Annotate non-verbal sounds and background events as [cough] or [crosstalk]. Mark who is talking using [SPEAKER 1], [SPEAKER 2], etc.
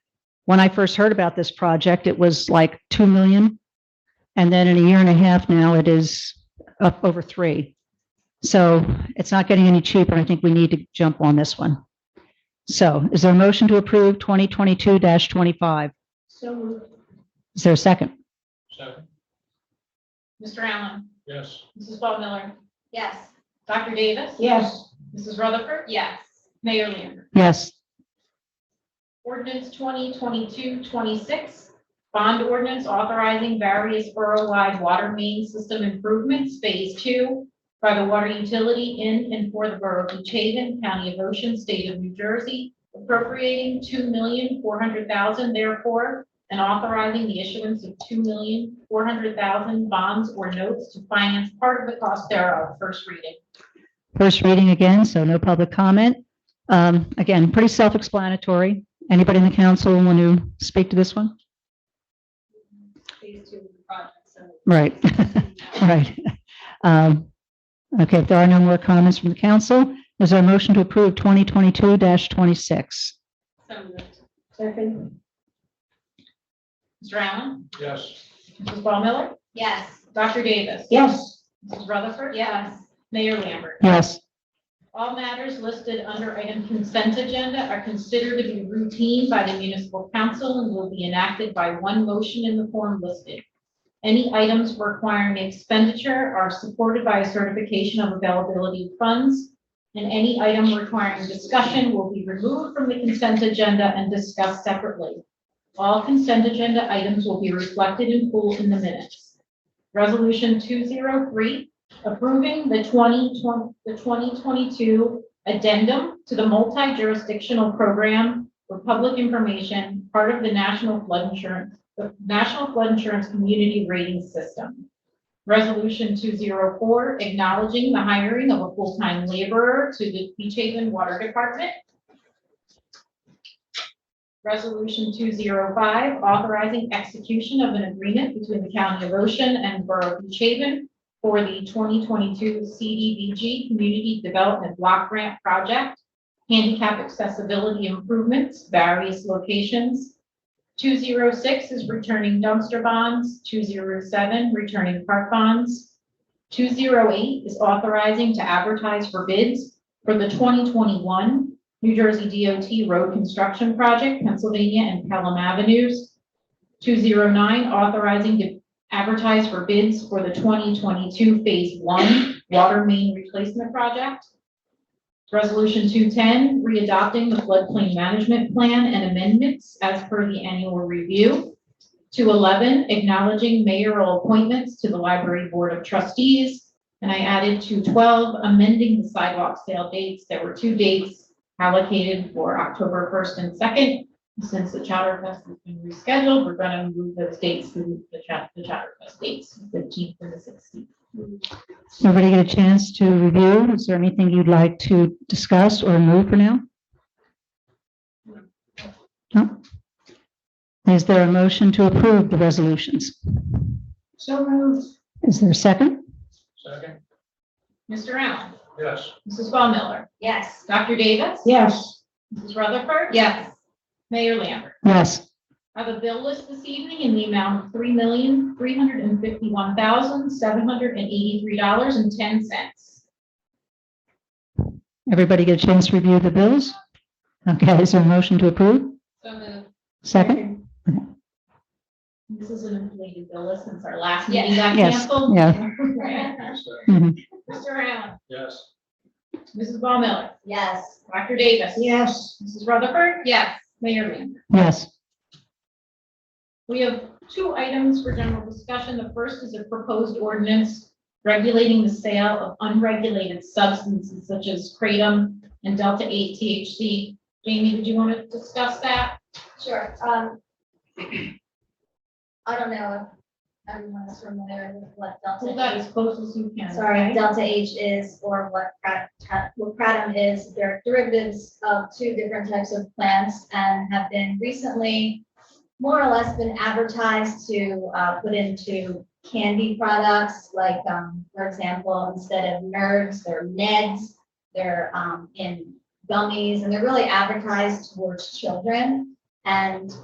[SPEAKER 1] when I first heard about this project, it was like 2 million. And then in a year and a half now, it is up over 3. So it's not getting any cheaper. I think we need to jump on this one. So is there a motion to approve 2022-25?
[SPEAKER 2] So moved.
[SPEAKER 1] Is there a second?
[SPEAKER 3] Second,
[SPEAKER 4] Mr. Allen.
[SPEAKER 3] yes.
[SPEAKER 4] Mrs. Ball Miller.
[SPEAKER 2] Yes.
[SPEAKER 4] Dr. Davis.
[SPEAKER 2] Yes.
[SPEAKER 4] Mrs. Rutherford.
[SPEAKER 2] Yes.
[SPEAKER 4] Mayor Lambert.
[SPEAKER 1] Yes.
[SPEAKER 4] Ordinance 2022-26, bond ordinance authorizing various borough-wide water main system improvements, phase two, by the water utility in and for the borough of Beach Haven, County of Ocean, State of New Jersey, appropriating two million four hundred thousand therefore, and authorizing the issuance of two million four hundred thousand bonds or notes to finance part of the cost thereof, first reading.
[SPEAKER 1] First reading again, so no public comment. Um, Again, pretty self-explanatory. Anybody in the council want to speak to this one?
[SPEAKER 2] Phase two of the project, so.
[SPEAKER 1] Right.
[SPEAKER 2] [laughs]
[SPEAKER 1] Right. Um, Okay, if there are no more comments from the council, is there a motion to approve 2022-26?
[SPEAKER 2] So moved.
[SPEAKER 4] Second. Mr. Allen.
[SPEAKER 3] Yes.
[SPEAKER 4] Mrs. Ball Miller.
[SPEAKER 2] Yes.
[SPEAKER 4] Dr. Davis.
[SPEAKER 2] Yes.
[SPEAKER 4] Mrs. Rutherford.
[SPEAKER 2] Yes.
[SPEAKER 4] Mayor Lambert.
[SPEAKER 1] Yes.
[SPEAKER 4] All matters listed under item consent agenda are considered to be routine by the municipal council and will be enacted by one motion in the form listed. Any items requiring expenditure are supported by a certification of availability of funds, and any item requiring discussion will be removed from the consent agenda and discussed separately. All consent agenda items will be reflected in full in the minutes. Resolution two zero three approving the 2020, the 2022 addendum to the multi-jurisdictional program for public information, part of the National Flood Insurance, the National Flood Insurance Community Rating System. Resolution 204, acknowledging the hiring of a full-time laborer to the Beach Haven Water Department. Resolution 205, authorizing execution of an agreement between the County of Ocean and Borough of Beach Haven for the 2022 CDBG Community Development Block Grant Project, handicap accessibility improvements, various locations. 206 is returning dumpster bonds, 207 returning park bonds. 208 is authorizing to advertise for bids for the 2021 New Jersey DOT Road Construction Project, Pennsylvania and Pelham Avenues. 209 authorizing to advertise for bids for the 2022 Phase 1 Water Main Replacement Project. Resolution 210, readopting the floodplain management plan and amendments as per the annual review. 211, acknowledging mayoral appointments to the Library Board of Trustees. And I added 212, amending the sidewalk sale dates. There were two dates allocated for October 1st and 2nd. Since the Chowder Fest has been rescheduled, we're gonna move those dates to the Chow- the Chowder Fest dates, fifteenth and the sixteenth.
[SPEAKER 1] Everybody get a chance to review? Is there anything you'd like to discuss or move for now? No? Is there a motion to approve the resolutions?
[SPEAKER 4] So moved.
[SPEAKER 1] Is there a second?
[SPEAKER 3] Second,
[SPEAKER 4] Mr. Allen,
[SPEAKER 3] yes.
[SPEAKER 4] Mrs. Ball Miller,
[SPEAKER 2] Yes.
[SPEAKER 4] Dr. Davis.
[SPEAKER 1] Yes.
[SPEAKER 4] Mrs. Rutherford.
[SPEAKER 2] Yes.
[SPEAKER 4] Mayor Lambert.
[SPEAKER 1] Yes.
[SPEAKER 4] I have a bill list this evening in the amount of three million, three hundred and fifty-one thousand, seven hundred and eighty-three dollars and ten cents.
[SPEAKER 1] Everybody get a chance to review the bills? Okay, is there a motion to approve?
[SPEAKER 2] So moved.
[SPEAKER 1] Second?
[SPEAKER 4] This is an inflated bill list since our last
[SPEAKER 2] Yes.
[SPEAKER 4] meeting got
[SPEAKER 1] Yes,
[SPEAKER 4] canceled. [laughs]
[SPEAKER 2] yeah.
[SPEAKER 3] Second,
[SPEAKER 1] Mm-hmm.
[SPEAKER 4] Mr. Allen,
[SPEAKER 3] Yes.
[SPEAKER 4] Mrs. Ball Miller,
[SPEAKER 2] [laughs] Yes.
[SPEAKER 4] Dr. Davis.
[SPEAKER 2] Yes.
[SPEAKER 4] Mrs. Rutherford.
[SPEAKER 2] Yes.
[SPEAKER 4] Mayor Lambert.
[SPEAKER 1] Yes.
[SPEAKER 4] We have two items for general discussion. The first is a proposed ordinance regulating the sale of unregulated substances such as kratom and delta eight THC. Jamie, did you want to discuss that?
[SPEAKER 2] Sure, um. [clears throat] I don't know if everyone's familiar with what
[SPEAKER 4] Hold that
[SPEAKER 2] Delta
[SPEAKER 4] as close as you
[SPEAKER 2] H.
[SPEAKER 4] can.
[SPEAKER 2] Sorry,
[SPEAKER 4] okay?
[SPEAKER 2] Delta H is, or what Prat- Prat- what Kratom is, they're derivatives of two different types of plants and have been recently more or less been advertised to, uh, put into candy products, like, um, for example, instead of nerds, they're neds. They're, um, in gummies, and they're really advertised towards children. And